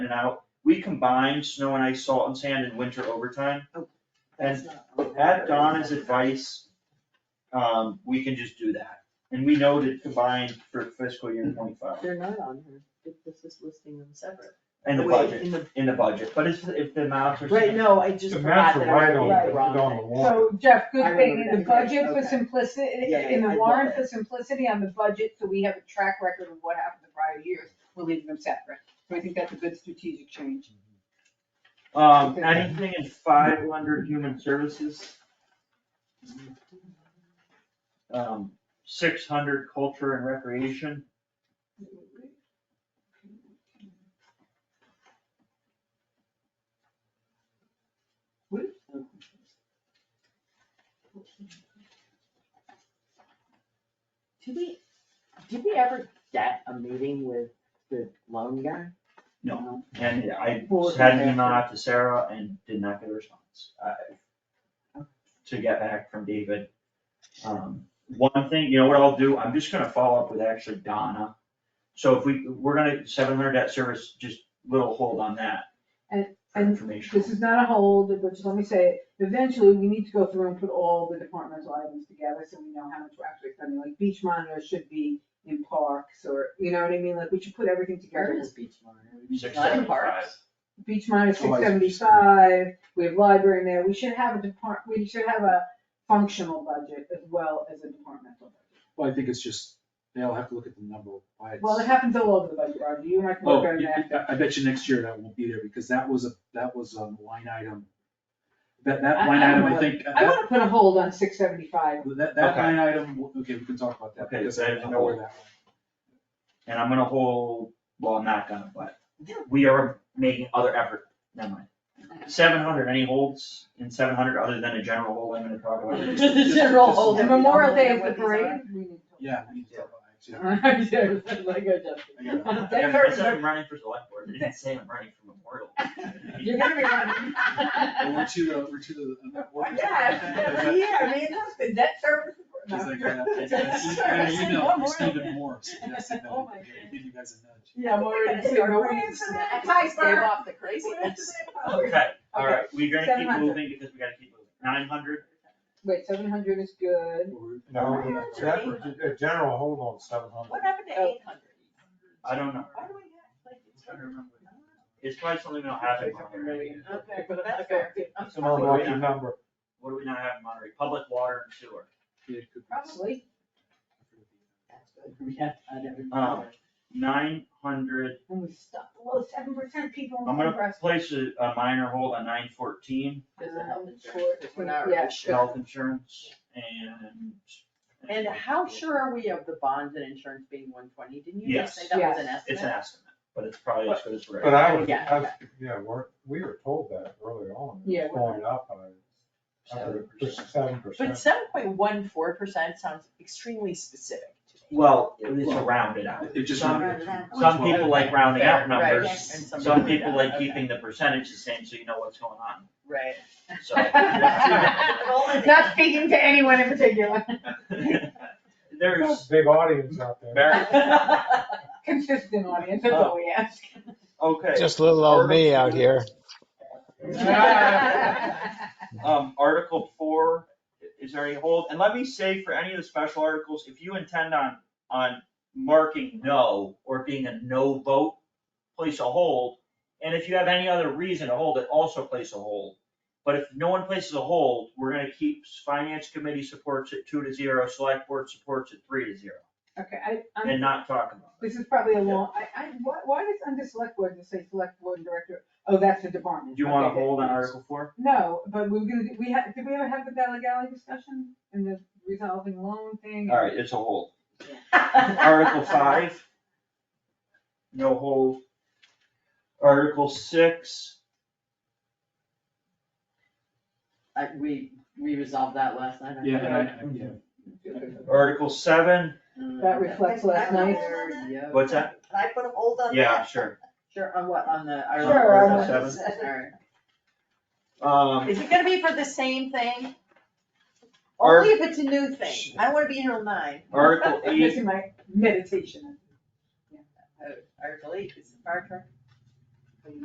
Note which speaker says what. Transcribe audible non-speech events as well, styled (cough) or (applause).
Speaker 1: and out, we combined snow and ice, salt and sand and winter overtime.
Speaker 2: That's not-
Speaker 1: At Donna's advice, um, we can just do that, and we know to combine for fiscal year twenty-five,
Speaker 2: They're not on here, If this is listing them separate.
Speaker 1: and the
Speaker 2: Wait,
Speaker 1: budget,
Speaker 2: in the-
Speaker 1: in the budget, but it's, if the amounts are.
Speaker 2: Right, no, I just
Speaker 3: The
Speaker 2: forgot
Speaker 3: maps
Speaker 2: that
Speaker 3: are
Speaker 2: I
Speaker 3: right
Speaker 2: wrote
Speaker 3: on,
Speaker 2: the
Speaker 3: the-
Speaker 2: wrong
Speaker 3: on the
Speaker 2: thing.
Speaker 3: wall.
Speaker 4: So Jeff,
Speaker 2: I
Speaker 4: good thing,
Speaker 2: remember
Speaker 4: in the
Speaker 2: that.
Speaker 4: budget for
Speaker 2: Okay.
Speaker 4: simplicity,
Speaker 2: Yeah, yeah,
Speaker 4: in
Speaker 2: I
Speaker 4: the
Speaker 2: love
Speaker 4: warrant
Speaker 2: that.
Speaker 4: for simplicity on the budget, so we have a track record of what happened the prior years, we're leaving them separate. So I think that's a good strategic change.
Speaker 1: Um, anything in five under human services? Um, six hundred culture and recreation,
Speaker 2: Did we, did we ever get a meeting with the loan guy?
Speaker 1: No. and I
Speaker 2: Forward
Speaker 1: had an
Speaker 2: and
Speaker 1: email
Speaker 2: after.
Speaker 1: out to Sarah and did not get a response. I- To get back from David. Um, one thing, you know what I'll do, I'm just gonna follow up with actually Donna. So if we, we're gonna, seven hundred debt service, just little hold on that.
Speaker 4: And-
Speaker 1: for
Speaker 4: and
Speaker 1: information.
Speaker 4: This is not a hold, but just let me say, it. eventually, we need to go through and put all the departmental items together, so we know how much we're actually spending, like beach monitors should be in parks, or, you know what I mean, like, we should put everything
Speaker 2: Where
Speaker 4: together.
Speaker 2: is Beach Monitor?
Speaker 1: Six
Speaker 2: Not in
Speaker 1: seventy-five.
Speaker 2: parks.
Speaker 4: Beach minus
Speaker 3: Oh,
Speaker 4: six
Speaker 3: I see.
Speaker 4: seventy-five, we have library in there, we should have a depart, we should have a functional budget as well as a departmental budget.
Speaker 5: Well, I think it's just, they'll have to look at the number, why it's.
Speaker 4: Well, it happens all over the budget, Roger, you and I can
Speaker 5: Oh,
Speaker 4: work on
Speaker 5: I,
Speaker 4: that.
Speaker 5: I bet you next year that won't be there, because that was a, that was a line item. That, that
Speaker 4: I-
Speaker 5: line
Speaker 4: I
Speaker 5: item,
Speaker 4: don't
Speaker 5: I think,
Speaker 4: I
Speaker 5: that,
Speaker 4: wanna put a hold on
Speaker 5: (laughs)
Speaker 4: six seventy-five,
Speaker 5: that, that
Speaker 1: Okay.
Speaker 5: line item, okay, we can talk about that,
Speaker 1: Okay,
Speaker 5: because
Speaker 1: so I
Speaker 5: I
Speaker 1: didn't
Speaker 5: don't know where that went.
Speaker 1: And I'm gonna hold, well, I'm not gonna, but we are making other effort, never mind. Seven hundred, any holds in seven hundred other than a general hold I'm gonna talk about?
Speaker 2: Just (laughs) the general hold.
Speaker 4: and Memorial Day is the parade. we need to-
Speaker 5: Yeah. we need to talk about it,
Speaker 4: (laughs)
Speaker 5: yeah.
Speaker 2: Like I just-
Speaker 5: I gotta- I
Speaker 4: That
Speaker 5: gotta-
Speaker 1: I said I'm running for select board, I didn't say I'm running for memorial.
Speaker 2: You're gonna be running.
Speaker 5: Well, We're to the, we're uh, to the.
Speaker 4: (laughs) Why
Speaker 5: uh,
Speaker 4: not? Yeah, I
Speaker 2: (laughs)
Speaker 4: mean, that's the debt service.
Speaker 5: Because I
Speaker 4: (laughs)
Speaker 5: got, I got an
Speaker 4: Sorry,
Speaker 5: email
Speaker 4: one
Speaker 5: from
Speaker 4: more.
Speaker 5: Stephen Morris,
Speaker 4: (laughs)
Speaker 5: suggesting that
Speaker 2: Oh
Speaker 5: I
Speaker 2: my
Speaker 5: give you guys a nudge.
Speaker 4: Yeah,
Speaker 2: (laughs)
Speaker 4: I'm already
Speaker 2: We're
Speaker 4: seeing
Speaker 2: gonna
Speaker 4: no
Speaker 2: start
Speaker 4: reason.
Speaker 2: praying for that. Stave off the craziness.
Speaker 1: Okay, alright, we're gonna keep
Speaker 4: 700.
Speaker 1: moving because we gotta keep moving. Nine hundred,
Speaker 4: Wait, seven hundred is good,
Speaker 3: No, that was a general hold on seven
Speaker 2: What
Speaker 3: hundred.
Speaker 2: happened to eight hundred?
Speaker 1: I don't know,
Speaker 2: Why do we have, like, it's.
Speaker 1: I don't remember. it's probably something that'll happen. Monterey.
Speaker 2: (laughs) Okay, but that's fair. I'm
Speaker 3: It's an unlucky number.
Speaker 1: What do we not have in Monterey? Public water and sewer.
Speaker 5: Yeah, could-
Speaker 4: probably.
Speaker 2: That's good. Yeah, I never.
Speaker 1: Um, Nine hundred,
Speaker 4: And we stuck, well, seven percent people in
Speaker 1: I'm
Speaker 4: the
Speaker 1: gonna place a, a minor hold on nine fourteen.
Speaker 2: There's a health insurance, 'cause we're not
Speaker 4: Yeah,
Speaker 2: really
Speaker 4: sure.
Speaker 2: sure.
Speaker 1: health insurance and.
Speaker 2: And how sure are we of the bonds and insurance being one twenty? Didn't you just say
Speaker 1: Yes.
Speaker 2: that was an
Speaker 4: Yes.
Speaker 1: It's
Speaker 2: estimate?
Speaker 1: an estimate, but it's probably as good as we're.
Speaker 3: But I was,
Speaker 2: Yeah.
Speaker 3: I was, yeah, we're, we were told that early on,
Speaker 4: Yeah,
Speaker 3: it's
Speaker 4: we're-
Speaker 3: going up, I, I would, seven
Speaker 2: But
Speaker 3: percent.
Speaker 2: seven point one four percent sounds extremely specific to me.
Speaker 1: Well, it's rounded out.
Speaker 5: It just.
Speaker 1: Some,
Speaker 5: reminded me of
Speaker 1: some
Speaker 5: 12.
Speaker 1: people like rounding out
Speaker 2: Fair, right,
Speaker 1: numbers,
Speaker 2: and some
Speaker 1: some
Speaker 2: don't.
Speaker 1: people like
Speaker 2: Okay.
Speaker 1: keeping the percentage the same, so you know what's going on,
Speaker 2: (laughs) Right.
Speaker 1: so. (laughs)
Speaker 4: (laughs) Not speaking to anyone in particular,
Speaker 1: There's,
Speaker 3: Big audience out there.
Speaker 1: Very-
Speaker 4: consistent audience, that's all we ask.
Speaker 1: okay.
Speaker 6: Just little old me out here.
Speaker 1: Oh. (laughs)
Speaker 2: (laughs)
Speaker 1: Um, Article four, is there any hold? And let me say for any of the special articles, if you intend on, on marking no or being a no vote, place a hold. And if you have any other reason to hold it, also place a hold. But if no one places a hold, we're gonna keep, finance committee supports it two to zero, select board supports it three to zero,
Speaker 4: Okay, I,
Speaker 1: and
Speaker 4: I'm,
Speaker 1: not talk about it.
Speaker 4: this is probably a long, I, I, why, why does under select board just say select board and director, oh, that's the
Speaker 1: Do
Speaker 4: department.
Speaker 1: you wanna
Speaker 4: Okay, good.
Speaker 1: hold on Article four?
Speaker 4: No, but we we're gonna, do- we had, did we ever have the Valley Galley discussion and the resolving loan thing?
Speaker 1: All right, it's a hold. Article
Speaker 2: Article
Speaker 1: five. No hold. Article six,
Speaker 2: we, we resolved that last night. I
Speaker 5: Yeah,
Speaker 2: think.
Speaker 5: and I, yeah.
Speaker 1: article seven,
Speaker 2: Mm,
Speaker 4: That reflects last night.
Speaker 2: Yeah.
Speaker 1: what's that?
Speaker 7: Can I put a hold on that?
Speaker 1: Yeah, sure.
Speaker 2: Sure, on what, on the. our-
Speaker 4: Sure,
Speaker 1: on
Speaker 2: All
Speaker 1: what-
Speaker 2: right.
Speaker 1: Um,
Speaker 7: Is it gonna be for the same thing? Only if it's a new thing. I wanna be here till nine.
Speaker 1: article
Speaker 4: (laughs) I'm
Speaker 1: eight,
Speaker 4: missing my meditation.
Speaker 2: Article eight, is the fire truck.